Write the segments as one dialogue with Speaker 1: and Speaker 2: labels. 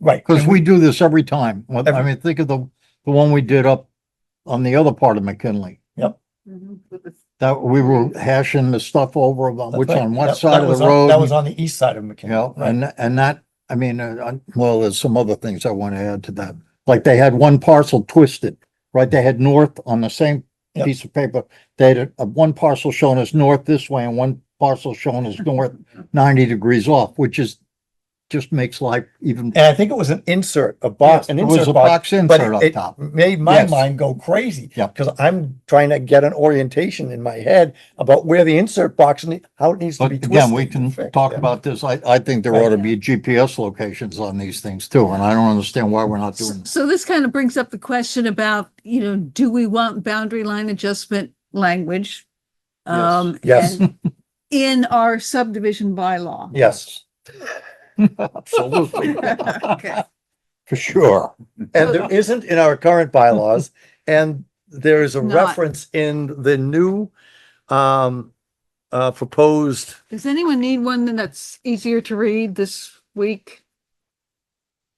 Speaker 1: Right.
Speaker 2: Because we do this every time. Well, I
Speaker 1: Every-
Speaker 2: mean, think of the, the one we did up on the other part of McKinley. That we were hashing the stuff over about
Speaker 1: That's
Speaker 2: which
Speaker 1: right.
Speaker 2: on what
Speaker 1: That-
Speaker 2: side
Speaker 1: that
Speaker 2: of
Speaker 1: was
Speaker 2: the
Speaker 1: on-
Speaker 2: road.
Speaker 1: That was on the east side of
Speaker 2: You
Speaker 1: McKinley.
Speaker 2: know,
Speaker 1: right.
Speaker 2: and, and that, I mean, uh, uh, well, there's some other things I want to add to that. Like they had one parcel twisted, right? They had north on the same
Speaker 1: Yep.
Speaker 2: piece of paper. They had a- a- one parcel shown as north this way and one parcel shown as north ninety degrees off, which is, just makes life even.
Speaker 1: And I think it was an insert, a box, an
Speaker 2: It was
Speaker 1: insert
Speaker 2: a
Speaker 1: box.
Speaker 2: box insert
Speaker 1: but it-
Speaker 2: up
Speaker 1: it
Speaker 2: top.
Speaker 1: Made my
Speaker 2: Yes.
Speaker 1: mind go crazy.
Speaker 2: Yeah.
Speaker 1: Cause I'm trying to get an orientation in my head about where the insert box and the- how it needs to
Speaker 2: But
Speaker 1: be twisted.
Speaker 2: again, we
Speaker 1: and
Speaker 2: can
Speaker 1: fixed,
Speaker 2: talk
Speaker 1: yeah.
Speaker 2: about this. I, I think there
Speaker 1: Right.
Speaker 2: ought to be GPS locations on these things too, and I don't understand why we're not doing.
Speaker 3: So this kind of brings up the question about, you know, do we want boundary line adjustment language?
Speaker 2: Yes.
Speaker 3: Um,
Speaker 1: Yes.
Speaker 3: and In our subdivision bylaw.
Speaker 1: Yes.
Speaker 2: Absolutely,
Speaker 3: Okay.
Speaker 2: for sure.
Speaker 1: And there isn't in our current bylaws, and there is a
Speaker 3: Not.
Speaker 1: reference in the new, um, uh, proposed,
Speaker 3: Does anyone need one that's easier to read this week?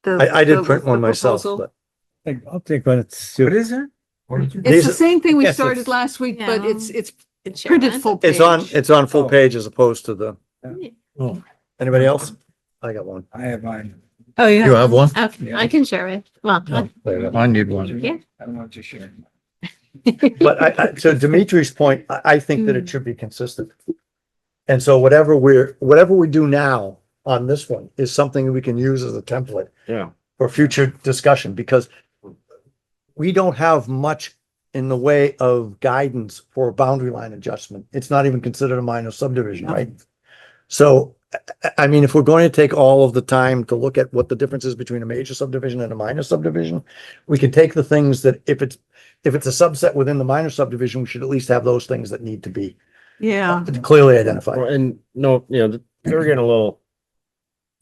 Speaker 3: The-
Speaker 1: I, I
Speaker 3: the-
Speaker 1: did print one
Speaker 3: the
Speaker 1: myself,
Speaker 3: proposal?
Speaker 1: but
Speaker 4: I'll take one. What is it?
Speaker 3: It's the
Speaker 1: these-
Speaker 3: same thing we
Speaker 4: Yes, it's-
Speaker 3: started last week, but
Speaker 5: Yeah.
Speaker 3: it's, it's printed full page.
Speaker 1: it's on, it's on full
Speaker 4: Oh.
Speaker 1: page as opposed to the,
Speaker 2: Oh.
Speaker 1: anybody else? I got one.
Speaker 4: I have mine.
Speaker 5: Oh,
Speaker 2: You have one?
Speaker 5: Okay, I can share it. Well, I-
Speaker 2: I need one.
Speaker 5: Yeah.
Speaker 4: I don't want to share.
Speaker 1: But I, I, to Dimitri's point, I, I think that it
Speaker 3: Mm.
Speaker 1: should be consistent. And so whatever we're, whatever we do now on this one is something we can use as a template.
Speaker 2: Yeah.
Speaker 1: For future discussion, because we don't have much in the way of guidance for boundary line adjustment. It's not even considered a minor subdivision, right? So, I- I, I mean, if we're going to take all of the time to look at what the difference is between a major subdivision and a minor subdivision, we can take the things that if it's if it's a subset within the minor subdivision, we should at least have those things that need to be
Speaker 3: Yeah.
Speaker 1: clearly identified.
Speaker 6: Well, And no, you know, th- they're getting a little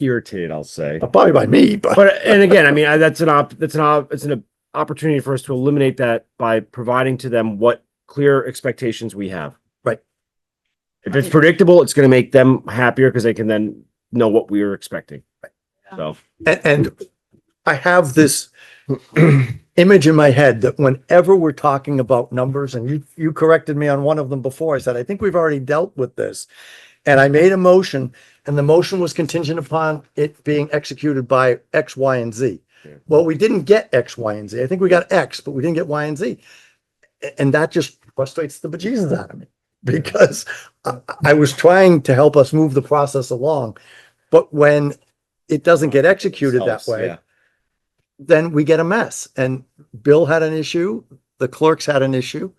Speaker 6: irritated, I'll say.
Speaker 1: Probably by me, but
Speaker 6: But, and again, I mean, I, that's an op, that's an op, it's an opportunity for us to eliminate that by providing to them what clear expectations we have.
Speaker 1: Right.
Speaker 6: If it's predictable, it's gonna make them happier because they can then know what we are expecting. So,
Speaker 1: and, and I have this image in my head that whenever we're talking about numbers, and you you corrected me on one of them before, I said I think we've already dealt with this, and I made a motion, and the motion was contingent upon it being executed by X, Y, and Z.
Speaker 6: Yeah.
Speaker 1: Well, we didn't get X, Y, and Z. I think we got X, but we didn't get Y and Z. A- And that just frustrates the bejesus out of me because I, I was trying to help us move the process along. But when it doesn't get executed that
Speaker 6: Helps,
Speaker 1: way,
Speaker 6: yeah.
Speaker 1: then we get a mess. And Bill had an issue, the clerks had an issue.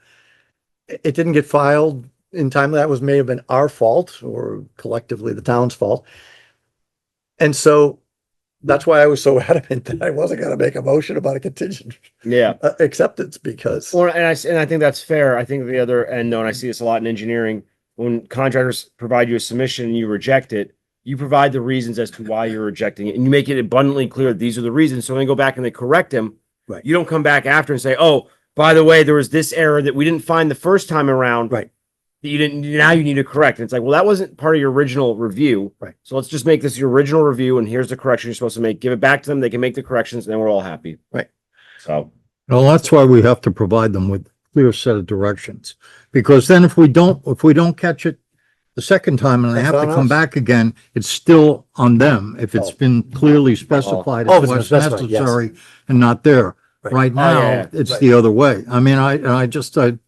Speaker 1: It it didn't get filed in time. That was, may have been our fault or collectively the town's fault. And so that's why I was so adamant that I wasn't gonna make a motion about a contingent
Speaker 6: yeah.
Speaker 1: uh, acceptance because,
Speaker 6: Well, and I s- and I think that's fair. I think the other end, though, and I see this a lot in engineering, when contractors provide you a submission and you reject it, you provide the reasons as to why you're rejecting it, and you make it abundantly clear these are the reasons. So when they go back and they correct them,
Speaker 1: Right.
Speaker 6: you don't come back after and say, "Oh, by the way, there was this error that we didn't find the first time around."
Speaker 1: Right.
Speaker 6: That you didn't. Now you need to correct. And it's like, well, that wasn't part of your original review.
Speaker 1: Right.
Speaker 6: So let's just make this your original review, and here's the correction you're supposed to make. Give it back to them. They can make the corrections, and then we're all happy.
Speaker 1: Right.
Speaker 6: So.
Speaker 2: Well, that's why we have to provide them with clear set of directions, because then if we don't, if we don't catch it the second time and they
Speaker 1: That's
Speaker 2: have to
Speaker 1: on
Speaker 2: come
Speaker 1: us.
Speaker 2: back again, it's still on them if it's
Speaker 1: Oh.
Speaker 2: been clearly specified
Speaker 1: Oh,
Speaker 2: as
Speaker 1: if it's been
Speaker 2: what's
Speaker 1: specified, yes.
Speaker 2: necessary and not there.
Speaker 1: Right.
Speaker 2: Right
Speaker 6: Oh, yeah,
Speaker 2: now,
Speaker 6: yeah,
Speaker 2: it's
Speaker 1: right.
Speaker 2: the other way. I mean, I, and I just, I,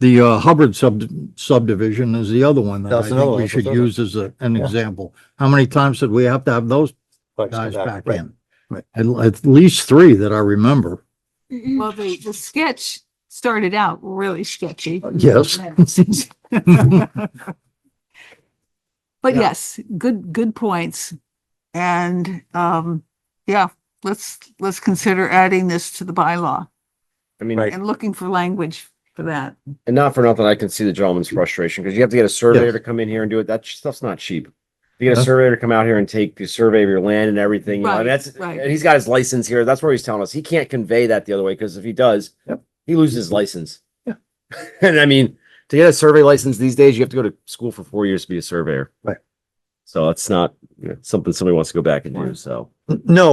Speaker 2: the uh, Hubbard sub subdivision is the other one that I
Speaker 1: That's another
Speaker 2: think
Speaker 1: one,
Speaker 2: we
Speaker 1: that's
Speaker 2: should
Speaker 1: another.
Speaker 2: use as a, an
Speaker 1: Yeah.
Speaker 2: example. How many times did we have to have those guys back
Speaker 1: Right.
Speaker 2: in?
Speaker 1: right.
Speaker 2: At, at least three that I remember.
Speaker 3: Well, the, the sketch started out really sketchy.
Speaker 2: Yes.
Speaker 3: But
Speaker 1: Yeah.
Speaker 3: yes, good, good points. And, um, yeah, let's, let's consider adding this to the bylaw
Speaker 6: I mean,
Speaker 1: Right.
Speaker 3: and looking for language for that.
Speaker 6: And not for nothing, I can see the gentleman's frustration because you have to get a surveyor to come in here and do it. That sh- stuff's not cheap. You get
Speaker 2: No.
Speaker 6: a surveyor to come out here and take the survey of your land and everything, you know,
Speaker 3: Right,
Speaker 6: and that's,
Speaker 3: right.
Speaker 6: and he's got his license here. That's where he's telling us. He can't convey that the other way because if he does,
Speaker 1: Yep.
Speaker 6: he loses his license. And I mean, to get a survey license these days, you have to go to school for four years to be a surveyor.
Speaker 1: Right.
Speaker 6: So it's not something somebody wants to go back and do, so.
Speaker 1: N- No,